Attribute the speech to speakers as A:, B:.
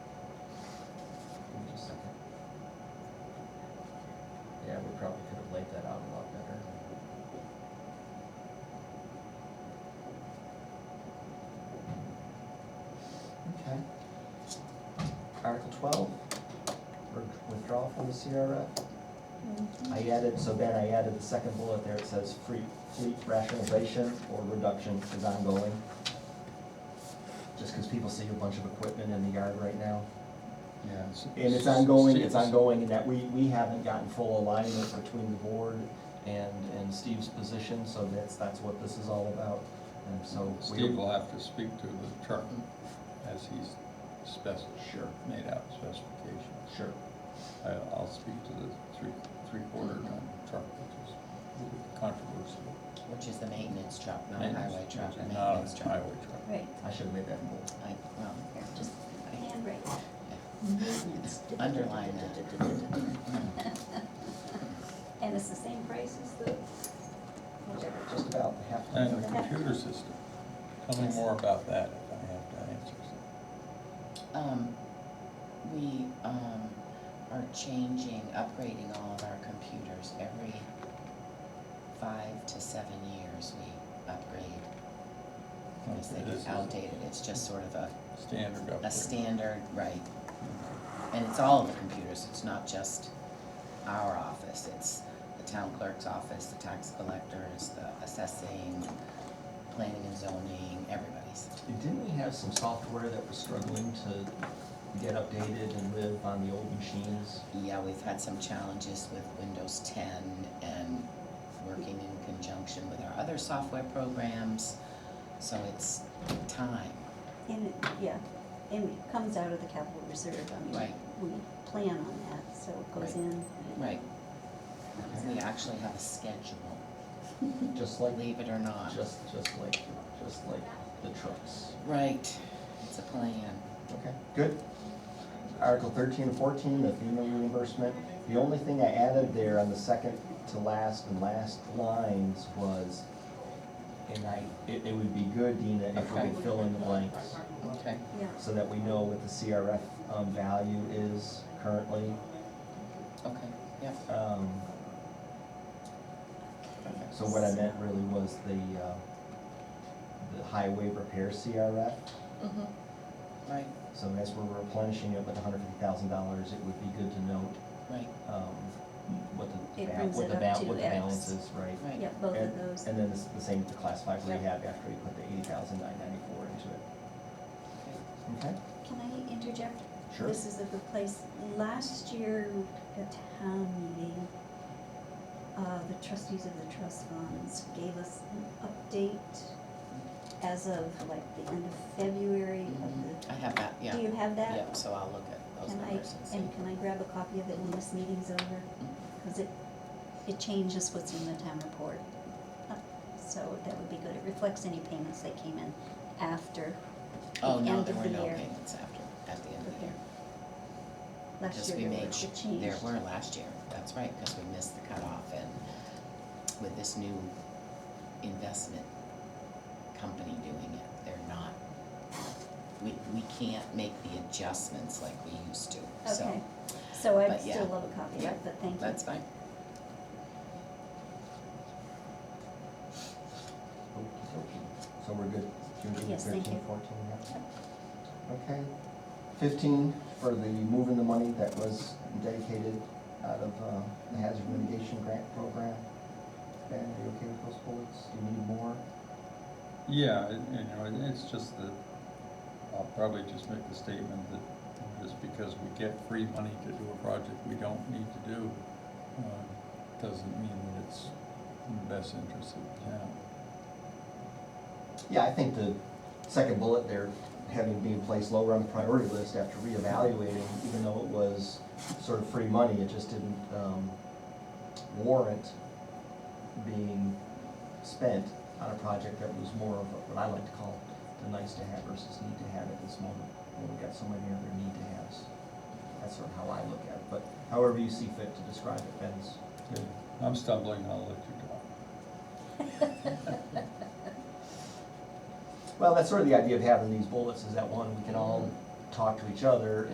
A: Article twelve, for withdrawal from the CRF. I added, so Ben, I added the second bullet there, it says free, fleet rationalization or reduction is ongoing. Just because people see a bunch of equipment in the yard right now.
B: Yeah.
A: And it's ongoing, it's ongoing, and that we, we haven't gotten full alignment between the board and, and Steve's position, so that's, that's what this is all about. And so. we-
B: Steve will have to speak to the chart as he's spec,
A: Sure.
B: made out specifications.
A: Sure.
B: I, I'll speak to the three, three-quarter ton truck, which is really controversial.
C: Which is the maintenance truck, not a
B: Maintenance,
C: highway truck,
B: which is not
C: a
B: a
C: maintenance truck.
B: Highway truck.
D: Right,
A: I should have made that bold.
C: I, well,
D: here,
C: just
D: just handwrite.
C: underline that.
D: And it's the same price as the, whatever.
A: Just about half.
B: And the computer system, tell me more about that if I have to answer some.
C: Um, we, um, are changing, upgrading all of our computers every five to seven years we upgrade. Because they
B: This
C: get
B: is
C: outdated, it's just sort of a,
B: Standard upgrade.
C: a standard, right. And it's all of the computers, it's not just our office, it's the town clerk's office, the tax collectors, the assessing, planning and zoning, everybody's.
A: And Didn't we have some software that was struggling to get updated and live on the old machines?
C: Yeah, we've had some challenges with Windows ten and working in conjunction with our other software programs, so it's time.
D: And it, yeah, and it comes out of the capital reserve, I mean,
C: Right.
D: we plan on that, so it goes
C: Right.
D: in. and it-
C: Right, we actually have a schedule,
A: Just like,
C: believe it or not.
A: just, just like, just like the trucks.
C: Right, it's a plan.
A: Okay, good. Article thirteen and fourteen, the FEMA reimbursement. The only thing I added there on the second to last and last lines was, and I, it, it would be good, Dina, if we
C: Okay.
A: could fill in the blanks.
C: Okay.
D: Yeah,
A: So that we know what the CRF, um, value is currently.
C: Okay, yep,
A: Um,
C: perfect.
A: So what I meant really was the, uh, the highway repair CRF.
D: Mm-hmm.
C: Mhm. Right,
A: So as we're replenishing it with hundred fifty thousand dollars, it would be good to note,
C: right,
A: um, what the,
D: It
A: ba-
D: brings
A: what
D: it
A: the
D: up
A: ba-
D: to
A: what the
D: X.
A: balance is, right?
C: right.
D: yeah, both of
A: And-
D: those.
A: And then it's the same for class five
C: Yep.
A: rehab after we put the eighty thousand nine ninety-four into it.
C: Okay.
A: Okay,
D: Can I interject?
A: sure.
D: This is a good place. Last year at town meeting, uh, the trustees of the trust funds gave us an update as of like the end of February of
C: Mhm. I have that,
D: the,
C: yeah,
D: Mm-hmm. do you have that?
C: yep, so I'll look at those
D: Can I,
C: numbers and see.
D: and can I grab a copy of it when this meeting's over?
C: Mm-hmm.
D: Because it, it changes what's in the town report. Uh, So that would be good. It reflects any payments that came in after the
C: Oh,
D: end
C: no,
D: of
C: there
D: the year.
C: were no payments after, at the end of the year.
D: Last
C: Because
D: year
C: we
D: there were-
C: made, sh-
D: it changed.
C: there were last year, that's right, because we missed the cutoff and with this new investment company doing it, they're not, we, we can't make the adjustments like we used to, so.
D: Okay, so I'd
C: but yeah.
D: still love a copy of it, but thank you.
C: That's fine.
A: Okey-dokey. So we're good, June
D: Yes, thank
A: thirteen,
D: you.
A: fourteen, yeah? Okay, fifteen for the moving the money that was dedicated out of uh, the hazard mitigation grant program. Ben, are you okay with those bullets? Do you need more?
B: Yeah, it- you know, it- it's just that, I'll probably just make the statement that just because we get free money to do a project we don't need to do, uh, doesn't mean that it's in the best interest of the town.
A: Yeah, I think the second bullet there, having being placed lower on the priority list after reevaluating, even though it was sort of free money, it just didn't um, warrant being spent on a project that was more of what I like to call the nice to have versus need to have at this moment, when we've got so many other need to haves. That's sort of how I look at it, but however you see fit to describe it, Ben's.
B: Okay, I'm stumbling, I'll let you go.
A: Well, that's sort of the idea of having these bullets, is that one, we can all talk to each other